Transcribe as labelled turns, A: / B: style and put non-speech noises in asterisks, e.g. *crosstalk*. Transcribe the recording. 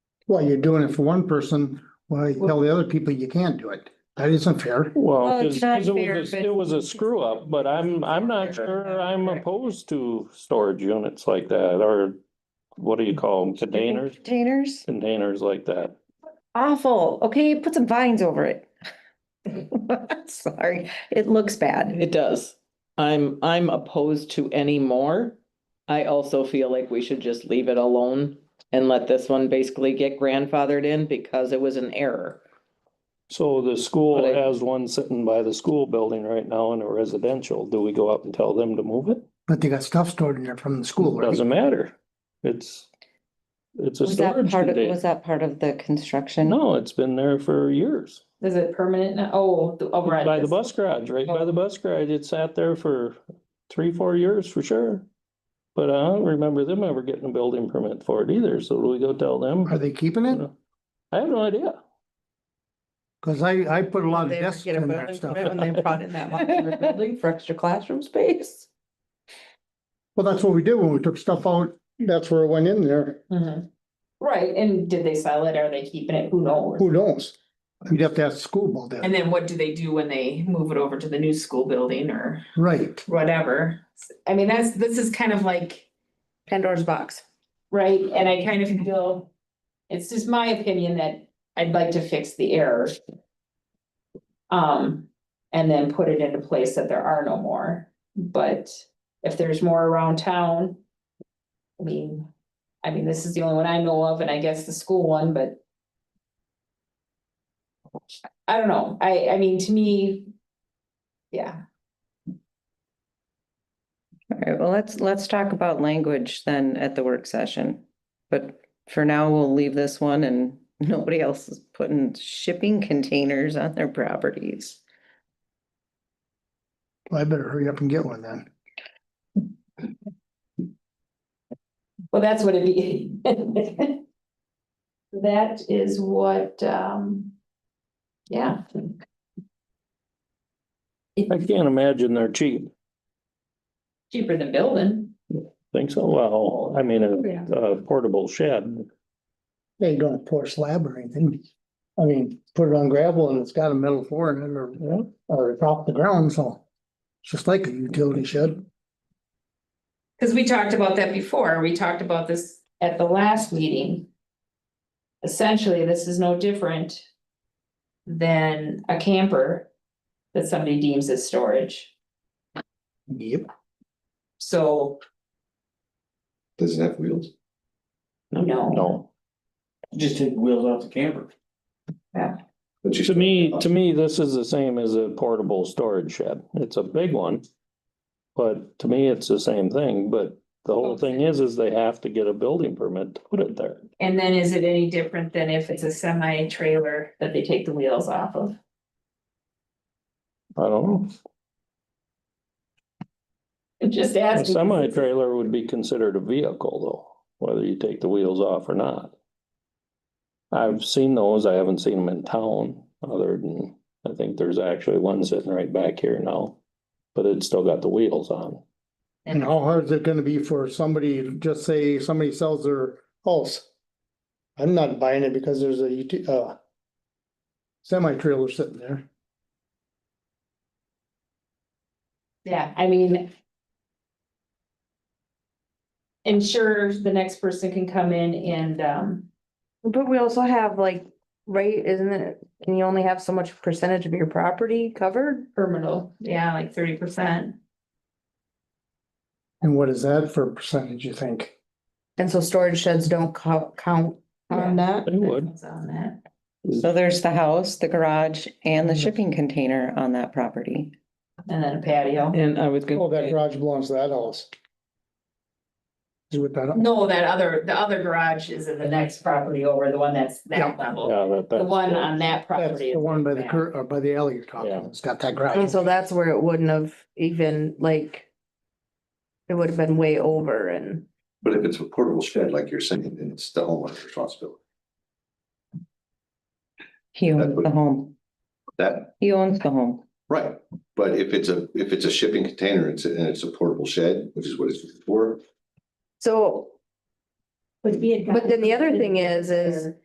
A: Well, you're doing it for one person, well, you tell the other people you can't do it. That isn't fair.
B: Well,
C: Well,
B: cause
C: it's
B: 'cause it
C: Oh, not fair,
B: was, a-
C: but-
B: it was a screw up, but I'm, I'm not sure I'm opposed to storage units like that or what do you call them, containers,
C: Containers,
B: containers like that.
C: awful. Okay, put some vines over it. *laughs* Sorry, it looks bad.
D: It does. I'm, I'm opposed to any more. I also feel like we should just leave it alone and let this one basically get grandfathered in because it was an error.
B: So the school
D: But I-
B: has one sitting by the school building right now in a residential. Do we go up and tell them to move it?
A: But they got stuff stored in there from the school, right?
B: Doesn't matter. It's, it's a
C: Was that
B: storage
C: part of, was
B: container.
C: that part of the construction?
B: No, it's been there for years.
E: Is it permanent now? Oh, the- over at.
B: By the
E: this-
B: bus garage, right by the bus garage. It sat there for three, four years for sure. But I don't remember them ever getting a building permit for it either. So do we go tell them?
A: Are they keeping it?
B: I have no idea.
A: Cause I, I put a lot of
D: They
A: desks
D: get a
A: in that
D: building
A: stuff.
D: permit When they brought in that modular building for extra classroom space.
A: Well, that's what we did when we took stuff out. That's where it went in there.
E: Mhm. Right, and did they sell it? Are they keeping it? Who knows?
A: Who knows? You'd have to ask the school about
E: And
A: that.
E: then what do they do when they move it over to the new school building or
A: Right.
E: whatever? I mean, that's, this is kind of like,
C: Pandora's box.
E: right, and I kind of feel. It's just my opinion that I'd like to fix the error. Um, and then put it into place that there are no more, but if there's more around town. I mean, I mean, this is the only one I know of, and I guess the school one, but. I don't know, I, I mean, to me. Yeah,
C: All right, well, let's, let's talk about language then at the work session. But for now, we'll leave this one and *laughs* nobody else is putting shipping containers on their properties.
A: I better hurry up and get one then.
E: well, that's what it be. *laughs* That is what, um. Yeah,
B: I can't imagine they're cheap.
E: cheaper than building.
B: Think so? Well, I mean, a, a portable shed.
A: They don't pour slab or anything. I mean, put it on gravel and it's got a metal floor in it or, or it's off the ground, so. It's just like a utility shed.
E: Cause we talked about that before, we talked about this at the last meeting. Essentially, this is no different. Than a camper. That somebody deems as storage,
A: Yep.
E: so,
F: Does it have wheels?
E: you know,
B: No.
G: Just take wheels off the camper.
F: But you-
B: To me, to me, this is the same as a portable storage shed. It's a big one. But to me, it's the same thing, but the whole thing is, is they have to get a building permit to put it there.
E: and then is it any different than if it's a semi trailer that they take the wheels off of? *laughs*
B: I don't know.
E: I'm Just
B: A
E: asking.
B: semi trailer would be considered a vehicle though, whether you take the wheels off or not. I've seen those. I haven't seen them in town other than, I think there's actually one sitting right back here now. But it's still got the wheels on.
A: And how hard is it gonna be for somebody, just say somebody sells their house? I'm not buying it because there's a uti- uh. Semi trailer sitting there.
E: Yeah, I mean. Ensure the next person can come in and, um,
H: But we also have like, right, isn't it, can you only have so much percentage of your property covered?
E: terminal, yeah, like thirty percent.
A: And what is that for a percentage, you think?
H: And so storage sheds don't co- count on that?
B: They would.
E: On that,
C: So there's the house, the garage and
B: Mm-hmm.
C: the shipping container on that property.
E: and then a patio.
D: And I was
A: Oh,
D: gonna,
A: that
D: say,
A: garage belongs to that house. Is with that,
E: No, that other, the other garage is in the next property over, the one that's that level,
B: Yeah, that-
E: the
B: that's-
E: one on
A: that's
E: that property.
A: the one by the cur, or by the alley you're talking,
B: Yeah.
A: about. it's got that
H: And
A: garage.
H: so that's where it wouldn't have even like. It would have been way over and,
F: But if it's a portable shed, like you're saying, then it's the homeowner's responsibility.
C: He
F: That
C: owns
F: would-
C: the home.
F: That,
C: He owns the home.
F: right, but if it's a, if it's a shipping container, it's, and it's a portable shed, which is what it's for,
H: so,
E: Would be.
H: but then the other thing is, is